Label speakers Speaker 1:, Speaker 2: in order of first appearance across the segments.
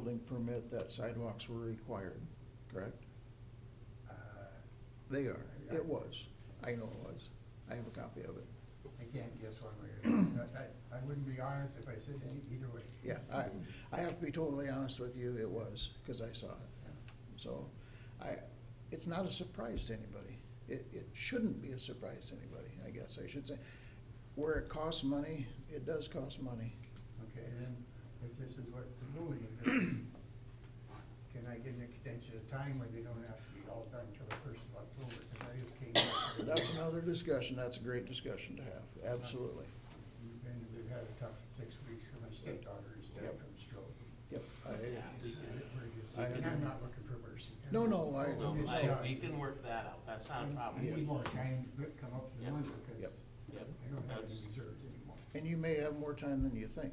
Speaker 1: building permit that sidewalks were required, correct?
Speaker 2: Uh,
Speaker 1: They are. It was. I know it was. I have a copy of it.
Speaker 2: I can't guess one way or another. I, I- I wouldn't be honest if I said any- either way.
Speaker 1: Yeah, I, I have to be totally honest with you, it was, because I saw it. So I, it's not a surprise to anybody. It, it shouldn't be a surprise to anybody, I guess I should say. Where it costs money, it does cost money.
Speaker 2: Okay, and then if this is what the ruling is gonna be, can I get an extension of time where they don't have to be all done till the first of October? Because I just came up with.
Speaker 1: That's another discussion, that's a great discussion to have, absolutely.
Speaker 2: We've been, we've had a tough six weeks, and my stepdaughter is dead
Speaker 1: Yep.
Speaker 2: from stroke.
Speaker 1: Yep, I,
Speaker 2: This is it, we're just-
Speaker 1: I-
Speaker 2: And I'm not looking for mercy.
Speaker 1: No, no, I-
Speaker 3: No,
Speaker 2: We're just
Speaker 3: I,
Speaker 2: done.
Speaker 3: we can work that out, that's not a
Speaker 2: I
Speaker 3: problem.
Speaker 2: need more time to come up with
Speaker 3: Yep.
Speaker 2: one, because
Speaker 1: Yep.
Speaker 3: Yep,
Speaker 2: I don't have
Speaker 3: that's,
Speaker 2: any reserves anymore.
Speaker 1: and you may have more time than you think.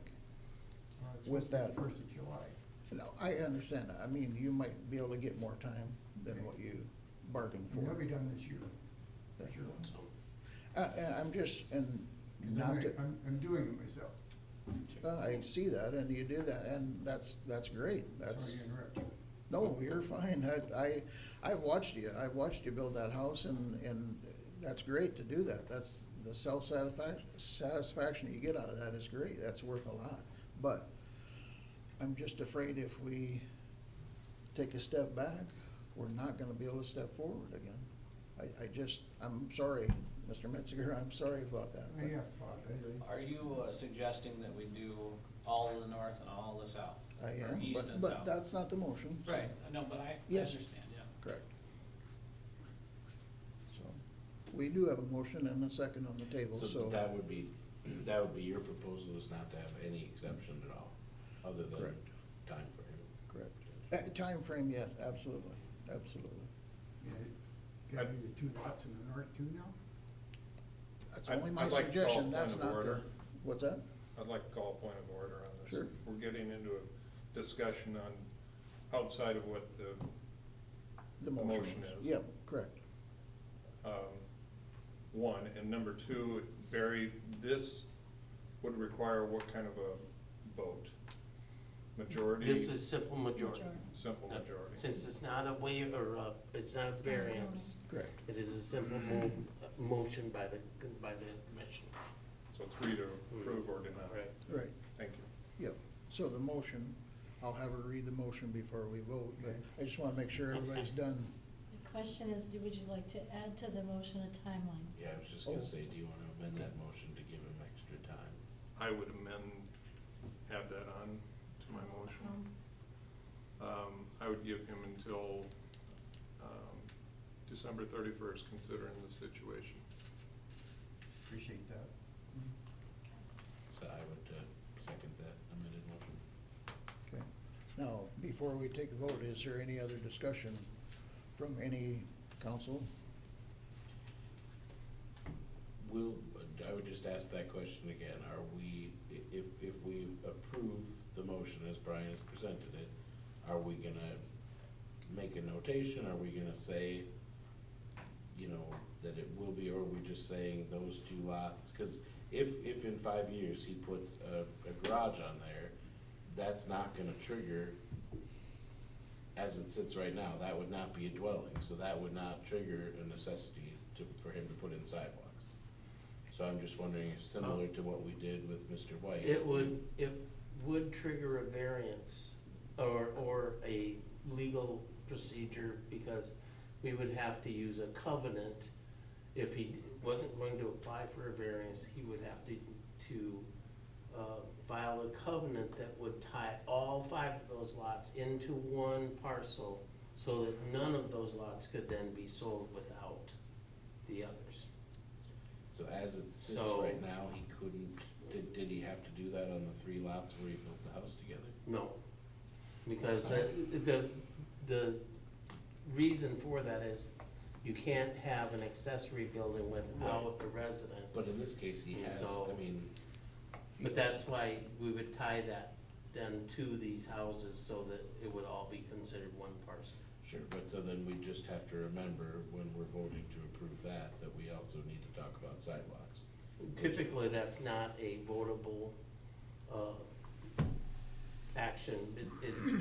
Speaker 2: Well, it's
Speaker 1: With
Speaker 2: supposed to be
Speaker 1: that-
Speaker 2: the First of July.
Speaker 1: No, I understand, I mean, you might be able to get more time than what you bargained
Speaker 2: And They'll be
Speaker 1: for.
Speaker 2: done this year. This year.
Speaker 3: so,
Speaker 1: Uh, and I'm just, and
Speaker 2: And I'm,
Speaker 1: not to.
Speaker 2: I'm, I'm doing it myself. Uh,
Speaker 1: Well, I see that, and you do that, and that's, that's great, that's,
Speaker 2: Sorry to interrupt you.
Speaker 1: no, you're fine, I, I, I've watched you, I've watched you build that house, and, and that's great to do that, that's, the self-satisfaction, satisfaction you get out of that is great, that's worth a lot, but I'm just afraid if we take a step back, we're not gonna be able to step forward again. I, I just, I'm sorry, Mr. Metziger, I'm sorry about that.
Speaker 2: I
Speaker 1: but-
Speaker 2: have apologize.
Speaker 4: Are you uh, suggesting that we do all of the north and all of the south?
Speaker 1: I
Speaker 4: Or
Speaker 1: am,
Speaker 4: east
Speaker 1: but,
Speaker 4: and
Speaker 1: but
Speaker 4: south?
Speaker 1: that's not the motion. so-
Speaker 4: Right, no, but I, I
Speaker 1: Yes.
Speaker 4: understand, yeah.
Speaker 1: Correct. So, we do have a motion and a second on the table,
Speaker 5: So
Speaker 1: so,
Speaker 5: that would be, that would be your proposal is not to have any exception at all, other than
Speaker 1: Correct.
Speaker 5: timeframe.
Speaker 1: correct. Uh, timeframe, yes, absolutely, absolutely.
Speaker 2: Yeah, Gotta be the two lots in the north too now?
Speaker 1: That's
Speaker 6: I'd-
Speaker 1: only my
Speaker 6: I'd like to call
Speaker 1: suggestion,
Speaker 6: point
Speaker 1: that's
Speaker 6: of
Speaker 1: not the,
Speaker 6: order.
Speaker 1: what's that?
Speaker 6: I'd like to call a point of order on this.
Speaker 1: Sure.
Speaker 6: We're getting into a discussion on, outside of what the,
Speaker 1: The
Speaker 6: The
Speaker 1: motion
Speaker 6: motion is.
Speaker 1: Yep, correct.
Speaker 6: um, one, and number two, Barry, this would require what kind of a vote? Majority?
Speaker 3: this is simple majority.
Speaker 6: Simple majority.
Speaker 3: Since it's not a waiver, or a- it's not a variance,
Speaker 1: Correct.
Speaker 3: it is a simple mo- uh, motion by the, by the commission.
Speaker 6: So three to approve or deny.
Speaker 1: Right,
Speaker 6: Thank you.
Speaker 1: yep. So the motion, I'll have her read the motion before we vote, but I just wanna make sure everybody's done.
Speaker 7: The question is, do, would you like to add to the motion a timeline?
Speaker 5: Yeah, I was just gonna
Speaker 1: Oh.
Speaker 5: say, do you wanna amend that motion to give him extra time?
Speaker 6: I would amend, add that on to my motion. Um, I would give him until, um, December thirty-first, considering the situation.
Speaker 2: Appreciate that.
Speaker 5: So I would, uh, second that amended motion.
Speaker 1: Okay. Now, before we take a vote, is there any other discussion from any council?
Speaker 5: Will, I would just ask that question again, are we, i- if, if we approve the motion as Brian has presented it, are we gonna make a notation, are we gonna say, you know, that it will be, or are we just saying those two lots? Cause if, if in five years he puts a, a garage on there, that's not gonna trigger, as it sits right now, that would not be a dwelling, so that would not trigger a necessity to, for him to put in sidewalks. So I'm just wondering, similar to what we did with Mr. White. if
Speaker 3: It
Speaker 5: we-
Speaker 3: would, it would trigger a variance or, or a legal procedure because we would have to use a covenant. If he wasn't going to apply for a variance, he would have to, to uh, file a covenant that would tie all five of those lots into one parcel so that none of those lots could then be sold without the others.
Speaker 5: So as it sits
Speaker 3: So-
Speaker 5: right now, he couldn't, did, did he have to do that on the three lots where he built the house together?
Speaker 3: No, because uh, the, the reason for that is you can't have an accessory building without a residence.
Speaker 5: But in this case, he has,
Speaker 3: So-
Speaker 5: I mean,
Speaker 3: But that's why we would tie that then to these houses so that it would all be considered one parcel.
Speaker 5: sure, but so then we just have to remember when we're voting to approve that, that we also need to talk about sidewalks.
Speaker 3: Typically, that's not a votable, uh, action. It, it